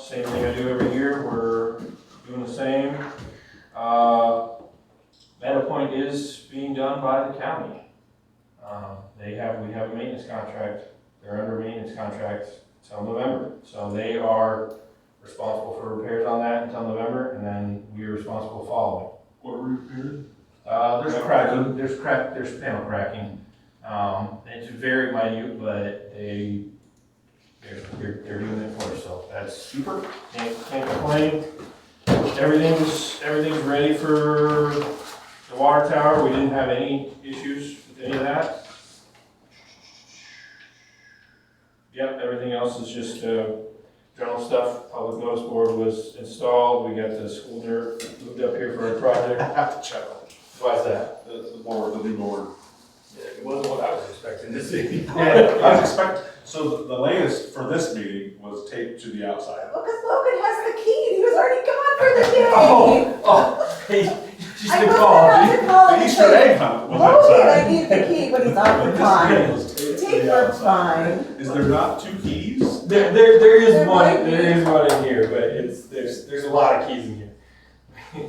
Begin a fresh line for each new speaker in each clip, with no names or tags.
same thing I do every year, we're doing the same. Uh, Metapoint is being done by the county. Uh, They have, we have a maintenance contract, they're under maintenance contract till November. So they are responsible for repairs on that until November, and then we are responsible following.
What repairs?
Uh, there's cracking, there's crack, there's panel cracking. Um, it's very minute, but they, they're, they're, they're doing it for us, so that's,
Super.
can't, can't complain. Everything's, everything's ready for the water tower, we didn't have any issues with any of that. Yep, everything else is just, uh, general stuff, public notice board was installed, we got the school dirt moved up here for our project. Why's that?
That's the board, the new board.
It wasn't what I was expecting to see.
Yeah, I was expect, so the- the latest for this meeting was taped to the outside.
Look, at Logan has the key. He was already gone for the day.
Oh, oh, hey, she's
I
been
wasn't
called.
allowed to
Oh,
call
The
and
Easter
say,
egg hunt was
Logan, I
outside.
need the key, but he's
But
on the
this
time.
meeting was taped to
Take
the
your
outside.
time.
Is there not two keys?
There, there, there
There
is one,
might be.
there is one in here, but it's, there's, there's a lot of keys in here. We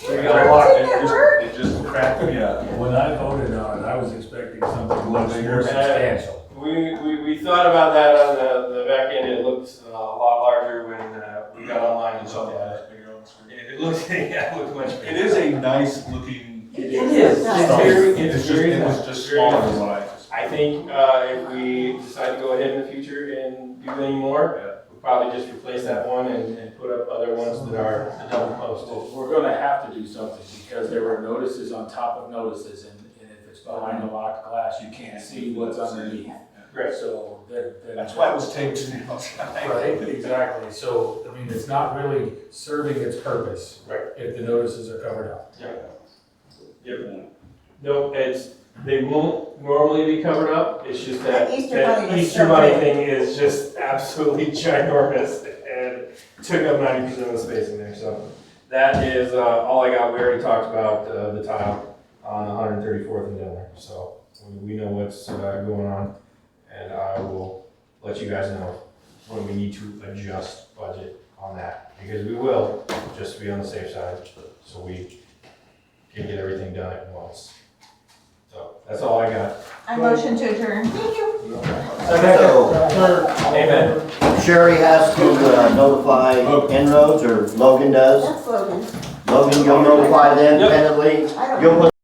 Take
got a
your
lot,
time,
it
it
just-
worked.
It just cracked me up.
When I voted on it, I was expecting something much
Bigger.
more substantial.
we, we, we thought about that on the, the back end, it looked uh, a lot larger when, uh, we got online and saw that. It it looked, yeah, it looked much
It
bigger.
is a nice looking.
It
is.
is
It's
nice.
very- it's
It's just,
very
it was
nice.
just
Very
smaller
nice.
than what I just.
I think, uh, if we decide to go ahead in the future and do any more, we'll probably just replace that one and, and put up other ones that are the double posted.
We're gonna have to do something because there were notices on top of notices and, and if it's behind a locked glass, you can't see what's underneath.
Great.
So that, that.
That's why it was taped to the outside.
Right, exactly. So, I mean, it's not really serving its purpose.
Right.
If the notices are covered up.
No, it's, they won't normally be covered up, it's just that,
The Easter bunny
that
was
Easter
so
bunny
big.
thing is just absolutely ginormous and took up ninety percent of the space in there, so. That is, uh, all I got, we already talked about, uh, the tile on one hundred thirty-fourth and Dillon, so we, we know what's, uh, going on. And I will let you guys know when we need to adjust budget on that, because we will, just to be on the safe side, so we can get everything done at once. So that's all I got.
I motion to adjourn. Thank you.
So
Amen.
Sherry has to uh, notify inroads, or Logan does.
That's Logan.
Logan, you'll notify them
Yep.
independently.
I don't.
You'll put